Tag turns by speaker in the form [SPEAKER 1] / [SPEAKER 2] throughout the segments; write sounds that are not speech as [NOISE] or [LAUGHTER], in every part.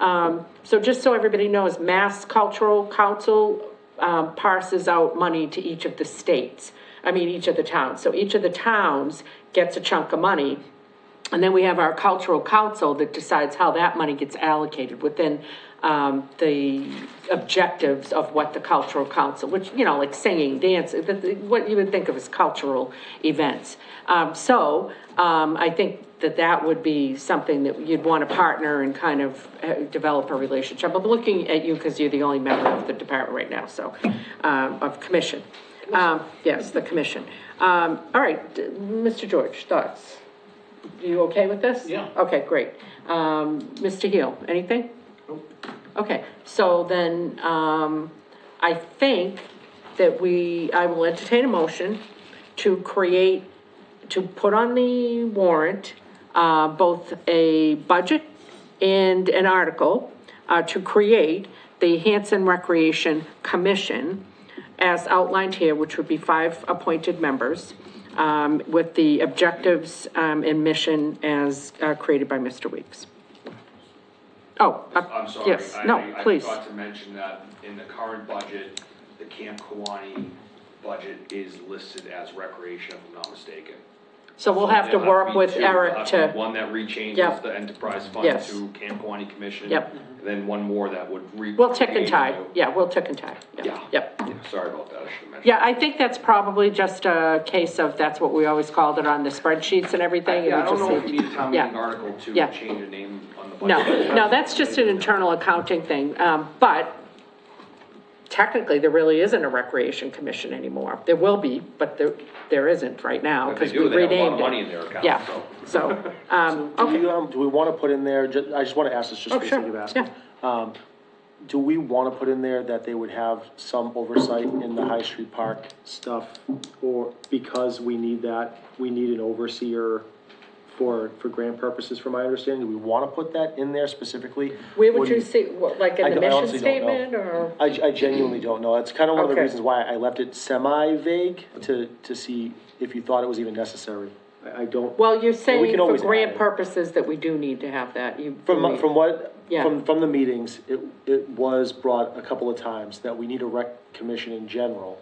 [SPEAKER 1] Um, so just so everybody knows, Mass Cultural Council, um, parses out money to each of the states, I mean, each of the towns. So each of the towns gets a chunk of money. And then we have our cultural council that decides how that money gets allocated within, um, the objectives of what the cultural council, which, you know, like singing, dance, the- the- what you would think of as cultural events. Um, so, um, I think that that would be something that you'd want to partner and kind of uh, develop a relationship. I'm looking at you because you're the only member of the department right now, so, um, of commission. Um, yes, the commission. Um, all right, d- Mr. George, thoughts? You okay with this?
[SPEAKER 2] Yeah.
[SPEAKER 1] Okay, great. Um, Mr. Heel, anything? Okay, so then, um, I think that we, I will entertain a motion to create, to put on the warrant, uh, both a budget and an article, uh, to create the Hanson Recreation Commission as outlined here, which would be five appointed members, um, with the objectives, um, and mission as, uh, created by Mr. Weeks. Oh, uh,
[SPEAKER 2] I'm sorry.
[SPEAKER 1] yes,
[SPEAKER 2] I-
[SPEAKER 1] no,
[SPEAKER 2] I-
[SPEAKER 1] please.
[SPEAKER 2] I forgot to mention that in the current budget, the Camp Kawani budget is listed as recreation, if I'm not mistaken.
[SPEAKER 1] So we'll have to
[SPEAKER 2] There'll
[SPEAKER 1] work
[SPEAKER 2] be
[SPEAKER 1] with
[SPEAKER 2] two.
[SPEAKER 1] Eric
[SPEAKER 2] There'll
[SPEAKER 1] to.
[SPEAKER 2] be One that rechanges
[SPEAKER 1] Yep.
[SPEAKER 2] the enterprise fund
[SPEAKER 1] Yes.
[SPEAKER 2] to Camp Kawani Commission.
[SPEAKER 1] Yep.
[SPEAKER 2] And then one more that would re.
[SPEAKER 1] We'll tick and
[SPEAKER 2] create
[SPEAKER 1] tie,
[SPEAKER 2] the-
[SPEAKER 1] yeah, we'll tick and tie, yeah,
[SPEAKER 2] Yeah.
[SPEAKER 1] yep.
[SPEAKER 2] Yeah, Sorry about that, I should have mentioned.
[SPEAKER 1] Yeah, I think that's probably just a case of, that's what we always called it on the spreadsheets and everything. and
[SPEAKER 2] Yeah, I
[SPEAKER 1] we
[SPEAKER 2] don't know
[SPEAKER 1] just
[SPEAKER 2] if you need a town
[SPEAKER 1] yeah.
[SPEAKER 2] meeting article to
[SPEAKER 1] Yeah.
[SPEAKER 2] change the name on the
[SPEAKER 1] No,
[SPEAKER 2] budget.
[SPEAKER 1] no, that's just an internal accounting thing, um, but technically, there really isn't a recreation commission anymore. There will be, but there, there isn't right now,
[SPEAKER 2] If they
[SPEAKER 1] because we
[SPEAKER 2] do, they have a lot
[SPEAKER 1] renamed
[SPEAKER 2] of money in
[SPEAKER 1] it.
[SPEAKER 2] their account,
[SPEAKER 1] Yeah,
[SPEAKER 2] so. [LAUGHS]
[SPEAKER 1] so, um,
[SPEAKER 3] Do
[SPEAKER 1] okay,
[SPEAKER 3] we, um, do we wanna put in there, ju- I just wanna ask this just
[SPEAKER 1] Oh,
[SPEAKER 3] because
[SPEAKER 1] sure,
[SPEAKER 3] you've asked. Um, do we wanna put in there that they would have some oversight in the High Street Park stuff? Or because we need that, we need an overseer for, for grant purposes, from my understanding, do we wanna put that in there specifically?
[SPEAKER 1] where would
[SPEAKER 3] do
[SPEAKER 1] you see, what, like
[SPEAKER 3] I
[SPEAKER 1] in the
[SPEAKER 3] don't- I
[SPEAKER 1] mission
[SPEAKER 3] honestly don't know.
[SPEAKER 1] statement, or?
[SPEAKER 3] I, I genuinely don't know, that's kinda one of the
[SPEAKER 1] Okay.
[SPEAKER 3] reasons why I left it semi-vague, to, to see if you thought it was even necessary. I, I don't.
[SPEAKER 1] Well, you're saying for
[SPEAKER 3] always add
[SPEAKER 1] grant
[SPEAKER 3] it.
[SPEAKER 1] purposes that we do need to have that, you.
[SPEAKER 3] From, from what,
[SPEAKER 1] Yeah.
[SPEAKER 3] from, from the meetings, it, it was brought a couple of times that we need a rec commission in general.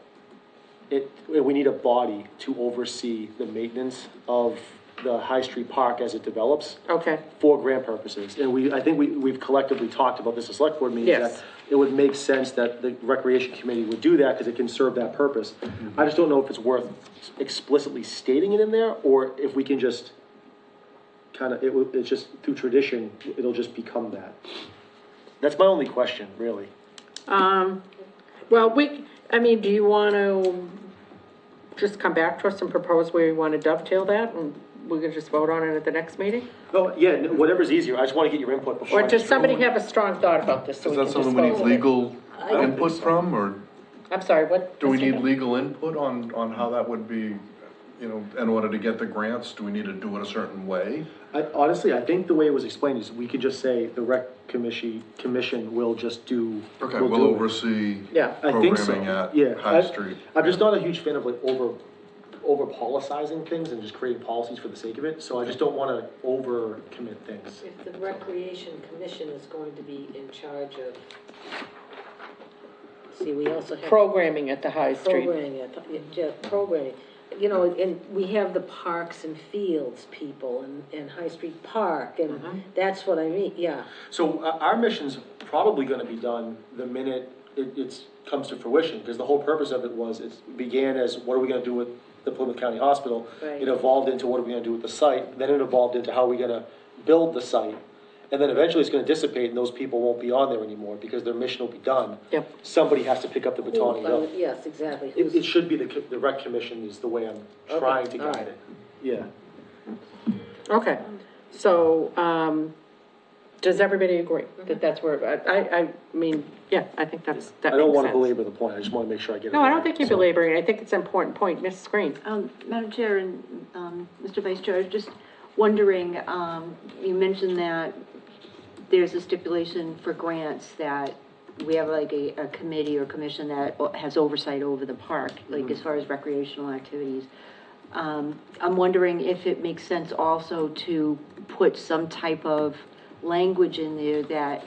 [SPEAKER 3] It, we need a body to oversee the maintenance of the High Street Park as it develops
[SPEAKER 1] Okay,
[SPEAKER 3] for grant purposes. And we, I think we, we've collectively talked about this at select board meetings.
[SPEAKER 1] Yes.
[SPEAKER 3] that It would make sense that the recreation committee would do that because it can serve that purpose. I just don't know if it's worth explicitly stating it in there or if we can just kind of, it would, it's just through tradition, it'll just become that. That's my only question, really.
[SPEAKER 1] um, well, we, I mean, do you want to just come back to us and propose where you want to dovetail that, and we can just vote on it at the next meeting?
[SPEAKER 3] Oh, yeah, whatever's easier. I just want to get your input before.
[SPEAKER 1] Or
[SPEAKER 3] I
[SPEAKER 1] does
[SPEAKER 3] just-
[SPEAKER 1] somebody have a strong thought about this, so we
[SPEAKER 4] Is
[SPEAKER 1] can
[SPEAKER 4] that
[SPEAKER 1] just
[SPEAKER 4] something we need
[SPEAKER 1] vote?
[SPEAKER 4] legal input from, or
[SPEAKER 1] I'm sorry, what?
[SPEAKER 4] do we
[SPEAKER 1] Mr.
[SPEAKER 4] need
[SPEAKER 1] Hill?
[SPEAKER 4] legal input on, on how that would be, you know, in order to get the grants, do we need to do it a certain way?
[SPEAKER 3] I, honestly, I think the way it was explained is we could just say the rec commission, commission will just do.
[SPEAKER 4] Okay,
[SPEAKER 3] will
[SPEAKER 4] we'll
[SPEAKER 3] do it.
[SPEAKER 4] oversee
[SPEAKER 1] Yeah,
[SPEAKER 3] I think so,
[SPEAKER 4] programming at
[SPEAKER 3] yeah.
[SPEAKER 4] High
[SPEAKER 3] I-
[SPEAKER 4] Street.
[SPEAKER 3] I'm just not a huge fan of like over, over policizing things and just creating policies for the sake of it, so I just don't wanna over commit things.
[SPEAKER 5] If the Recreation Commission is going to be in charge of, see, we also have.
[SPEAKER 1] Programming at the High Street.
[SPEAKER 5] Programming, I thought- yeah, yeah, programming. You know, and we have the parks and fields people and, and High Street Park, and that's what I mean, yeah.
[SPEAKER 3] So uh, our mission's probably gonna be done the minute it, it's, comes to fruition, because the whole purpose of it was, it began as, what are we gonna do with the Plymouth County Hospital?
[SPEAKER 5] Right.
[SPEAKER 3] It evolved into what are we gonna do with the site, then it evolved into how are we gonna build the site? And then eventually it's gonna dissipate and those people won't be on there anymore, because their mission will be done.
[SPEAKER 1] Yep.
[SPEAKER 3] Somebody has to pick up the baton and go.
[SPEAKER 5] uh, Yes, exactly.
[SPEAKER 3] It, it should be the, co- the rec commission is the way I'm
[SPEAKER 5] Okay,
[SPEAKER 3] trying to
[SPEAKER 5] alright.
[SPEAKER 3] guide it. Yeah.
[SPEAKER 1] Okay, so, um, does everybody agree that that's where, I, I, I mean, yeah, I think that's, that
[SPEAKER 3] I don't
[SPEAKER 1] makes
[SPEAKER 3] wanna
[SPEAKER 1] sense.
[SPEAKER 3] belabor the point, I just wanna make sure I get it
[SPEAKER 1] No, I
[SPEAKER 3] right,
[SPEAKER 1] don't think you're
[SPEAKER 3] so.
[SPEAKER 1] belaboring, it. I think it's an important point, Ms. Green.
[SPEAKER 6] Um, Madam Chair and, um, Mr. Vice Chair, I was just wondering, um, you mentioned that there's a stipulation for grants that we have like a, a committee or commission that o- has oversight over the park, like as far as recreational activities. Um, I'm wondering if it makes sense also to put some type of language in there that